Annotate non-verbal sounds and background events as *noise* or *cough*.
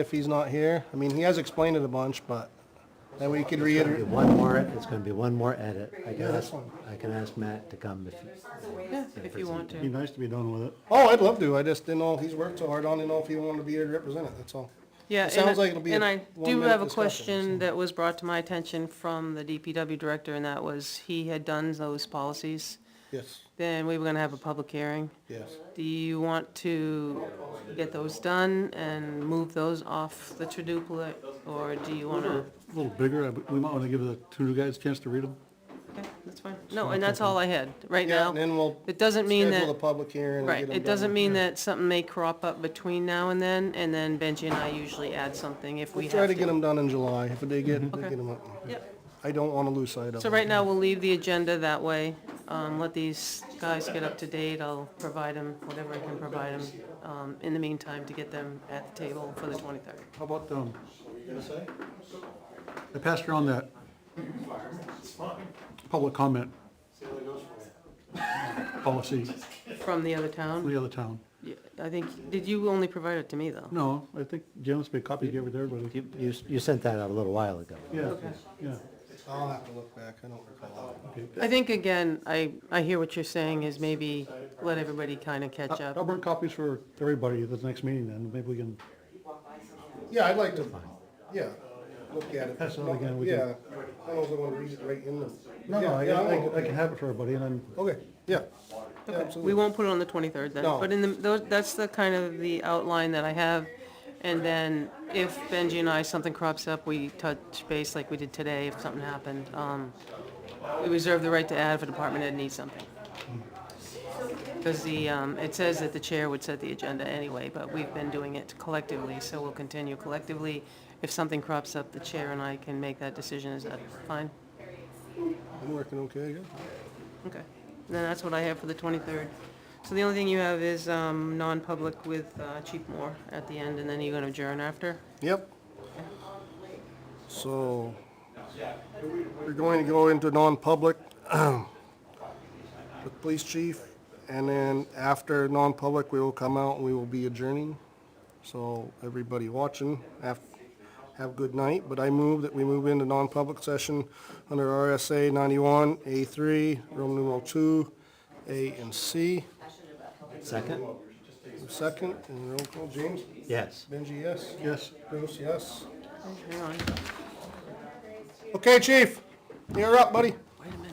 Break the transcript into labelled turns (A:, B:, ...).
A: if he's not here. I mean, he has explained it a bunch, but then we could
B: It'll be
A: reiterate.
B: One more, it's gonna be one more edit. I can
A: this
B: ask,
A: one.
B: I can ask Matt to come if.
C: Yeah, if you want
D: Be
C: to.
D: nice to be done with it.
A: Oh, I'd love to. I just didn't know if he's worked so hard on, it. know if he wanted to be here to represent it, that's all.
C: Yeah,
A: It sounds
C: and I-
A: like it'll be a
C: And I do
A: one-minute
C: have a
A: discussion,
C: question that was brought to my attention from the DPW director, and that was, he had done those policies.
A: Yes,
C: Then we were gonna have a public hearing.
A: yes.
C: Do you want to get those done and move those off the treduplet, or do you wanna?
A: Mm-hmm.
D: A little bigger, I- we might want to give the two new guys a chance to read them.
C: Okay, that's fine. No, and that's all I had right
A: Yeah,
C: now.
A: and then we'll
C: It doesn't mean
A: schedule the
C: that,
A: public hearing and get
C: right,
A: him
C: it doesn't mean that something may crop up between now and then, and then Benji and I usually add something if we
A: We'll
C: have
A: try to get them done in July. If they get, they
C: Okay.
A: get them up.
C: Yep.
A: I don't want to lose sight of them.
C: So right now, we'll leave the agenda that way, um, let these guys get up to date, I'll provide them whatever I can provide them, um, in the meantime, to get them at the table for the twenty-third.
D: How about, um, I passed around that public comment policy
C: From the other
D: from
C: town,
D: the other town.
C: Yeah, I think, did you only provide it to me, though?
D: No, I think Jim's made copies, gave it to everybody.
B: You, you, you sent that out a little while ago.
D: Yeah, yeah.
A: I'll have to look back. I don't recall.
C: I think, again, I, I hear what you're saying is maybe let everybody kinda catch
D: I'll
C: up.
D: bring copies for everybody at the next meeting then, maybe we can,
A: Yeah, I'd like to, yeah, look at it.
D: Pass it on again, we can-
A: Yeah, I don't know if I want to read it right in the.
D: no, no, I-
A: Yeah, yeah,
D: I, I
A: okay.
D: can have it for everybody and then
A: Okay, yeah.
C: Okay, We won't put it on the twenty-third then,
A: No.
C: but in the, tho- that's the kind of the outline that I have. And then if Benji and I, something crops up, we touch base like we did today, if something happened. Um, we reserve the right to add if a department head needs something. Because the, um, it says that the chair would set the agenda anyway, but we've been doing it collectively, so we'll continue collectively. If something crops up, the chair and I can make that decision, is that fine?
A: I'm working okay, yeah.
C: Okay, then that's what I have for the 23rd. So the only thing you have is um, non-public with uh, Chief Moore at the end, and then you're going to adjourn after?
A: Yep. So, we're going to go into non-public *clears throat* with police chief, and then after non-public, we will come out and we will be adjourning. So, everybody watching, have, have a good night, but I move that we move into non-public session under RSA ninety-one, A three, Roman numeral two, A and C.
B: Second?
A: Second, and roll call, James?
B: Yes.
A: Benji, yes?
D: Yes.
A: Bruce, yes?
C: Hang on.
A: Okay, chief, you're up, buddy.